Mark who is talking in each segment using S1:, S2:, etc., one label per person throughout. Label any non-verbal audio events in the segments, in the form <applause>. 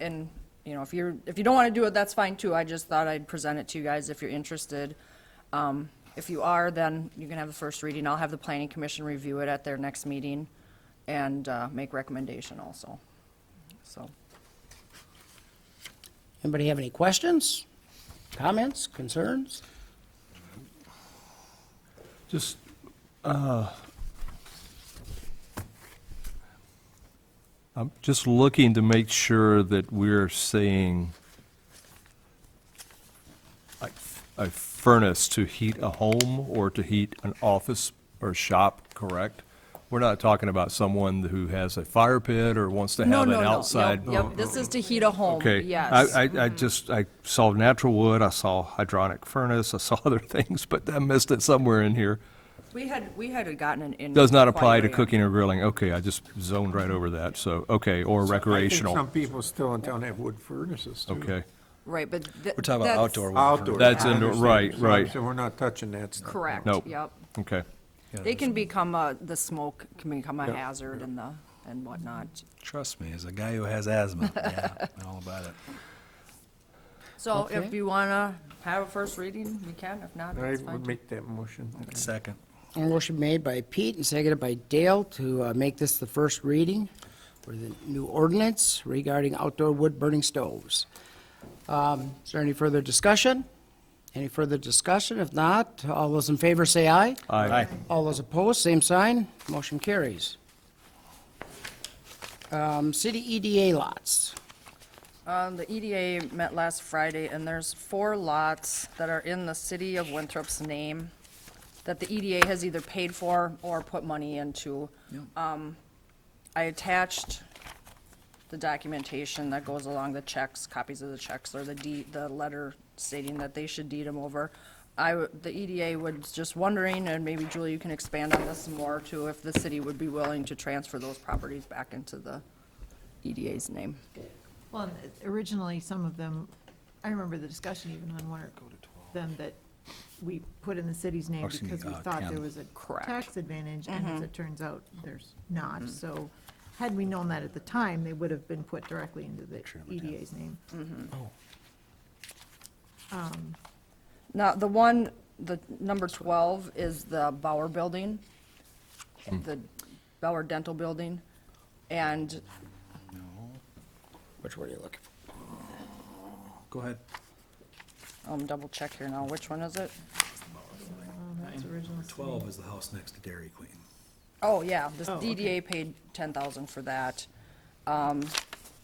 S1: and, you know, if you're, if you don't want to do it, that's fine too. I just thought I'd present it to you guys if you're interested. Um, If you are, then you can have the first reading. I'll have the planning commission review it at their next meeting and uh, make recommendation also. So,
S2: Anybody have any questions, comments, concerns?
S3: Just, uh, I'm just looking to make sure that we're saying a a furnace to heat a home or to heat an office or shop, correct? We're not talking about someone who has a fire pit or wants to
S1: no,
S3: have an
S1: no, no,
S3: outside.
S1: no, yep, this is to heat a home,
S3: Okay.
S1: yes. Mm-hmm.
S3: I, I, I just, I saw natural wood, I saw hydronic furnace, I saw <laughs> other things, but I missed it somewhere in here.
S1: We had, we had gotten an in.
S3: Does not apply to cooking or grilling. Okay, I just zoned right over that, so, okay, or
S4: I think
S3: recreational.
S4: some people still in town have wood furnaces, too.
S3: Okay,
S1: Right, but.
S5: We're talking about outdoor. wood
S4: Outdoor.
S5: furniture.
S3: That's indoor-
S4: I
S3: right,
S4: understand. So-
S3: right.
S4: So we're not touching that stuff.
S1: Correct,
S3: Nope.
S1: yep.
S3: okay.
S1: They can become a, the smoke can become a
S4: Yeah.
S1: hazard and the, and whatnot.
S5: Trust me, as a guy who has
S1: <laughs>
S5: asthma, yeah, I know all about it.
S1: So if
S2: Okay.
S1: you want to have a first reading, you can, if not,
S4: I
S1: that's fine.
S4: would
S1: too.
S4: make that motion.
S5: Second.
S2: A motion made by Pete and seconded by Dale to uh, make this the first reading for the new ordinance regarding outdoor wood-burning stoves. Um, Is there any further discussion? Any further discussion? If not, all those in favor say aye.
S3: Aye.
S2: All those opposed, same sign. Motion carries. Um, City EDA lots.
S1: Um, the EDA met last Friday, and there's four lots that are in the city of Winthrop's name that the EDA has either paid for or put money into. Um, I attached the documentation that goes along the checks, copies of the checks, or the deed, the letter stating that they should deed them over. I, w- the EDA was just wondering, and maybe Julie, you can expand on this more too, if the city would be willing to transfer those properties back into the EDA's name.
S6: Well, and originally, some of them, I remember the discussion even on one of them that we put in the city's name
S5: Oh, excuse me,
S6: because we
S5: uh,
S6: thought
S5: Ken.
S6: there was a
S1: Correct. Mm-hmm.
S6: tax advantage, and as it turns out, there's not. So had we known that at the time, they would have been put directly into the EDA's name.
S1: Mm-hmm. Now, the one, the number 12 is the Bauer Building,
S5: Hmm.
S1: the Bauer Dental Building, and
S2: Which one are you looking for?
S5: Go ahead.
S1: I'm double check here now, which one is it?
S6: Oh, That's original city.
S5: Twelve is the house next to Dairy Queen.
S1: Oh, yeah, the
S6: Oh, okay.
S1: DDA paid 10,000 for that. Um,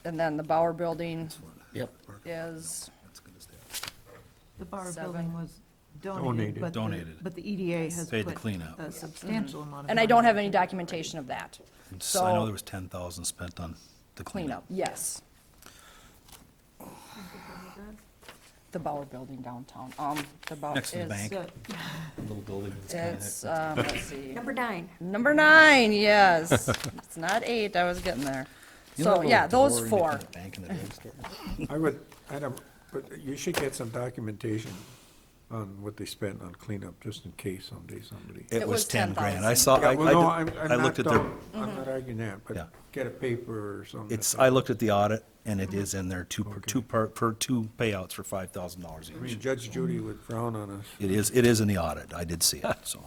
S1: And then the Bauer Building
S2: Yep.
S1: is,
S5: That's good as that.
S6: The bar
S1: Seven.
S6: building was
S4: Donated.
S6: donated, but the,
S5: Donated.
S6: but the EDA has
S5: Paid to
S6: put
S5: clean up.
S6: a substantial amount of.
S1: Mm-hmm. and I don't
S6: money
S1: have any
S6: into it.
S1: documentation of that.
S5: And s- I know there
S1: So,
S5: was ten thousand spent on the
S1: cleanup,
S5: cleanup.
S1: yes. The Bauer Building downtown, um, the Bauer.
S5: Next to the
S1: is-
S5: bank.
S6: So-
S5: Little building that's kinda-
S1: It's, um, let's see.
S5: <laughs>
S7: Number nine.
S1: Number nine, yes. It's not eight, I was getting there.
S5: You know
S1: So,
S5: the
S1: yeah,
S5: little
S1: those
S5: door in
S1: four.
S5: between the
S1: <laughs>
S5: Bank and the drugstore?
S4: I would, I don't, but you should get some documentation on what they spent on cleanup, just in case someday somebody.
S1: It
S5: It was
S1: was
S5: ten grand.
S1: 10,000.
S5: I saw, I,
S4: Yeah, well, no,
S5: I
S4: I'm-
S5: did-
S4: I'm
S5: I
S4: not
S5: looked at their,
S4: dumb. I'm
S1: Mm-hmm.
S4: not arguing that,
S5: Yeah.
S4: but get a paper or something.
S5: it's, I looked at the audit and it is in there, two, per- two per, per two payouts for five thousand dollars
S4: I mean,
S5: each.
S4: Judge Judy would frown on us.
S5: It is, it is in the audit. I did see it, so.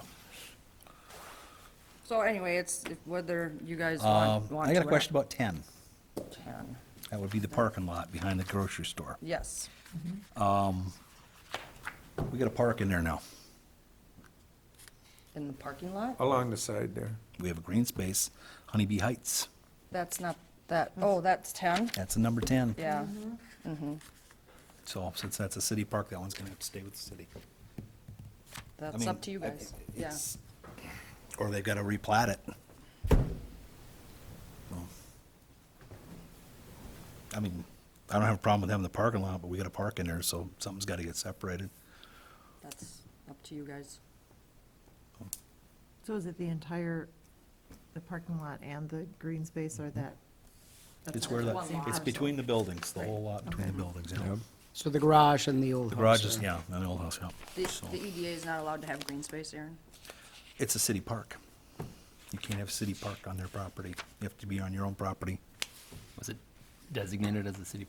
S1: So anyway, it's if- whether you guys
S5: Um,
S1: want, want to.
S5: I got a
S1: or
S5: question about ten.
S1: not. Ten.
S5: That would be the parking lot behind the grocery store.
S1: Yes,
S5: We got a park in there now.
S1: in the parking lot?
S4: Along the side there.
S5: We have a green space, Honeybee Heights.
S1: That's not, that, oh, that's ten?
S5: That's a number ten.
S1: Yeah,
S5: So since that's a city park, that one's gonna have to stay with the city. I
S1: that's
S5: mean,
S1: up to you
S5: I-
S1: guys. Yeah,
S5: it's- Or they've gotta replat it. Well, I mean, I don't have a problem with having the parking lot, but we got a park in there, so something's gotta get separated.
S1: that's up to you guys.
S6: So is it the entire, the parking lot and the green space or that? that's
S5: It's
S6: all
S5: where the,
S6: one lot?
S5: it's between the buildings, the whole lot between the
S6: Okay.
S5: buildings, yeah.
S2: So the garage and the old
S5: The
S2: house.
S5: garage is,
S2: there.
S5: yeah, and the old house, yeah.
S1: The,
S5: So,
S1: the EDA is not allowed to have green space, Aaron?
S5: It's a city park. You can't have a city park on their property. You have to be on your own property.
S8: Was it designated as a city